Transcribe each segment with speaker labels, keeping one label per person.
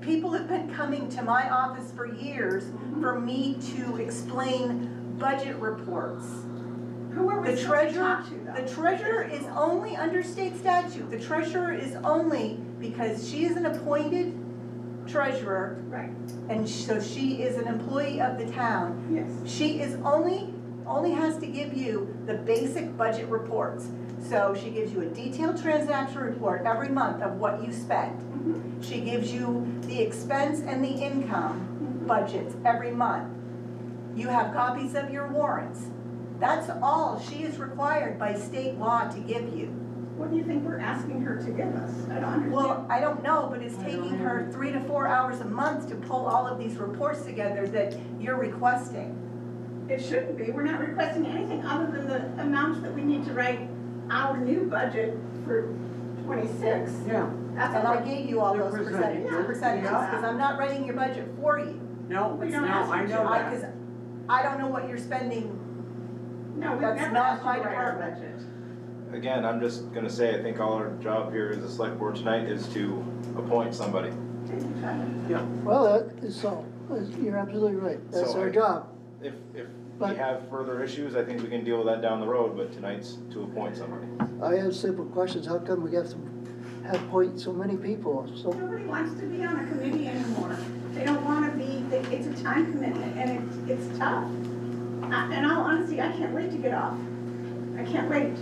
Speaker 1: People have been coming to my office for years for me to explain budget reports.
Speaker 2: Who are we
Speaker 1: The
Speaker 2: supposed to
Speaker 1: treasurer,
Speaker 2: talk to though?
Speaker 1: the treasurer is only under state statute, the treasurer is only, because she is an appointed treasurer,
Speaker 2: Right,
Speaker 1: and so she is an employee of the town.
Speaker 2: yes.
Speaker 1: She is only, only has to give you the basic budget reports. So she gives you a detailed transaction report every month of what you spent.
Speaker 2: Mhm,
Speaker 1: She gives you the expense and the income
Speaker 2: mhm.
Speaker 1: budgets every month. You have copies of your warrants. That's all she is required by state law to give you.
Speaker 2: What do you think we're asking her to give us? I don't understand.
Speaker 1: Well, I don't know, but it's taking her three to four hours a month to pull all of these reports together that you're requesting.
Speaker 2: It shouldn't be. We're not requesting anything other than the amounts that we need to write our new budget for twenty-six.
Speaker 3: Yeah,
Speaker 2: That's
Speaker 1: And I
Speaker 2: all.
Speaker 1: gave you all those
Speaker 3: Represent-
Speaker 1: percentages,
Speaker 2: yeah.
Speaker 1: percentages, because I'm not writing your budget for you.
Speaker 3: no,
Speaker 2: We
Speaker 3: it's
Speaker 2: don't ask
Speaker 3: not, I
Speaker 2: you
Speaker 3: know
Speaker 2: to.
Speaker 1: I,
Speaker 3: that.
Speaker 1: because I don't know what you're spending,
Speaker 2: No, we've
Speaker 1: that's
Speaker 2: never
Speaker 1: not
Speaker 2: asked you
Speaker 1: my
Speaker 2: to write our
Speaker 1: department.
Speaker 2: budget.
Speaker 4: Again, I'm just gonna say, I think all our job here as a select board tonight is to appoint somebody.
Speaker 2: Thank you, Chad.
Speaker 5: Well, that is so, you're absolutely right, that's
Speaker 4: So I-
Speaker 5: our job.
Speaker 4: If, if we
Speaker 5: But-
Speaker 4: have further issues, I think we can deal with that down the road, but tonight's to appoint somebody.
Speaker 5: I have simple questions, how come we have to have point so many people, so,
Speaker 2: Nobody wants to be on a committee anymore. They don't want to be, they- it's a time commitment and it's, it's tough. I- In all honesty, I can't wait to get off. I can't wait.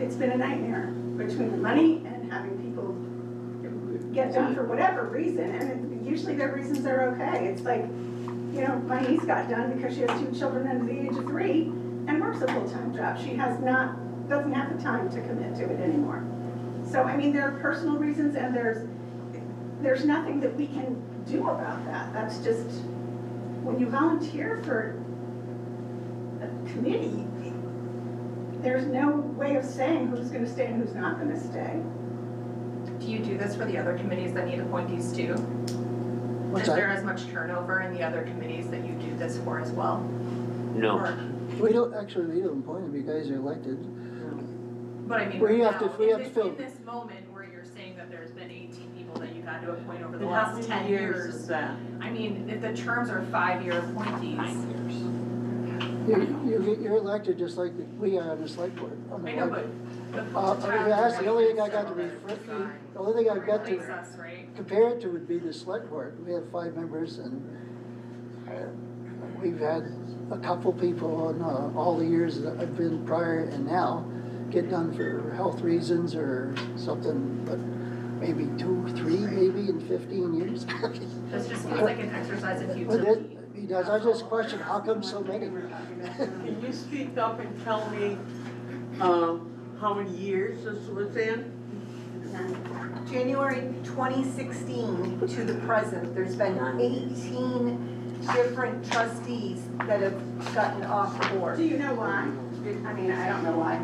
Speaker 2: It's been a nightmare between the money and having people get done for whatever reason. And it- usually their reasons are okay. It's like, you know, my niece got done because she has two children under the age of three and works a full-time job. She has not, doesn't have the time to commit to it anymore. So, I mean, there are personal reasons and there's, there's nothing that we can do about that. That's just, when you volunteer for a committee, there's no way of saying who's gonna stay and who's not gonna stay.
Speaker 6: Do you do this for the other committees that need appointees too?
Speaker 5: what's
Speaker 6: Is there
Speaker 5: that?
Speaker 6: as much turnover in the other committees that you do this for as well?
Speaker 7: No,
Speaker 6: Or-
Speaker 5: We don't, actually, we don't appoint them, you guys are elected.
Speaker 6: But I mean,
Speaker 5: We
Speaker 6: right
Speaker 5: have to-
Speaker 6: now,
Speaker 5: we have
Speaker 6: in
Speaker 5: to
Speaker 6: this,
Speaker 5: fill-
Speaker 6: in this moment where you're saying that there's been eighteen people that you've had to appoint over the
Speaker 3: And how
Speaker 6: last
Speaker 3: many
Speaker 6: ten
Speaker 3: years
Speaker 6: years,
Speaker 3: is that?
Speaker 6: I mean, if the terms are five-year appointees,
Speaker 5: You, you, you're elected just like we are on the select board. on the
Speaker 6: I know,
Speaker 5: board.
Speaker 6: but the.
Speaker 5: Uh,
Speaker 6: the
Speaker 5: I mean,
Speaker 6: towns
Speaker 5: that's the only thing I
Speaker 6: are
Speaker 5: got to
Speaker 6: several
Speaker 5: refer,
Speaker 6: that resign.
Speaker 5: the only thing I've got
Speaker 6: Replace
Speaker 5: to
Speaker 6: us, right?
Speaker 5: compare it to would be the select board, we have five members and uh, we've had a couple people in uh, all the years that I've been prior and now get done for health reasons or something, but maybe two, three maybe in fifteen years.
Speaker 6: This just feels like an exercise in
Speaker 5: But that,
Speaker 6: futility.
Speaker 5: he does, I just question, how come so many?
Speaker 3: Can you speak up and tell me, um, how many years this was in?
Speaker 1: January 2016 to the present, there's been 18 different trustees that have gotten off the
Speaker 2: Do
Speaker 1: board.
Speaker 2: you know why? I mean, I don't know why.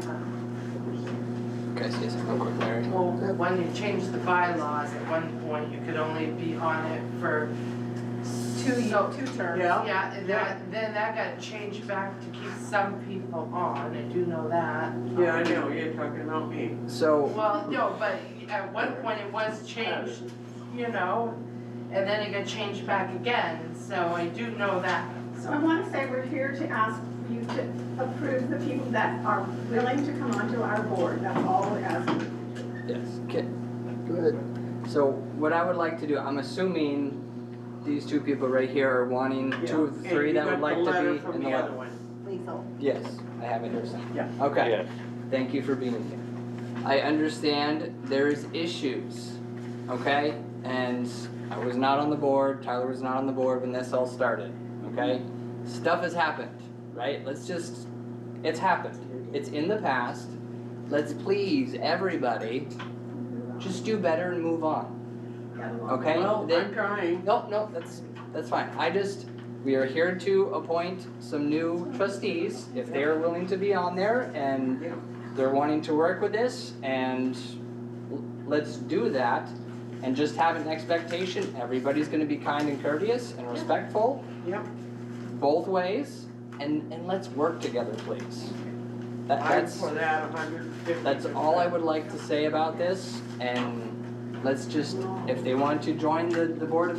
Speaker 8: Can I say something real quick, Larry?
Speaker 9: Well, when you changed the bylaws, at one point, you could only be on it for.
Speaker 1: Two, ye-
Speaker 9: so-
Speaker 1: two terms.
Speaker 3: Yeah.
Speaker 9: Yeah, and that, then that got changed back to keep some people on, I do know that.
Speaker 3: Yeah, I know, you're talking about me.
Speaker 8: So,
Speaker 9: Well, no, but at one point it was changed, you know, and then it got changed back again, so I do know that.
Speaker 2: So I want to say we're here to ask you to approve the people that are willing to come onto our board. That's all we're asking.
Speaker 8: yes, can,
Speaker 5: Good.
Speaker 8: so what I would like to do, I'm assuming these two people right here are wanting two of the
Speaker 3: Yeah,
Speaker 8: three that would like to be in the.
Speaker 3: And you got the letter from the
Speaker 8: le-
Speaker 3: other one.
Speaker 1: Lethal.
Speaker 8: Yes, I have it here, son.
Speaker 3: Yeah.
Speaker 8: Okay. Thank you for being here. I understand there's issues, okay? And I was not on the board, Tyler was not on the board when this all started, okay? Stuff has happened, right? Let's just, it's happened. It's in the past. Let's please, everybody, just do better and move on, okay?
Speaker 3: Well,
Speaker 8: They-
Speaker 3: I'm trying.
Speaker 8: no, no, that's, that's fine. I just, we are here to appoint some new trustees, if they are willing to be on there and
Speaker 3: Yeah.
Speaker 8: they're wanting to work with this and l- let's do that. And just have an expectation, everybody's gonna be kind and courteous and respectful.
Speaker 3: Yeah.
Speaker 8: Both ways, and, and let's work together, please. That,
Speaker 3: I'm
Speaker 8: that's.
Speaker 3: for that a hundred and fifty.
Speaker 8: That's all I would like to say about this, and let's just, if they want to join the, the Board of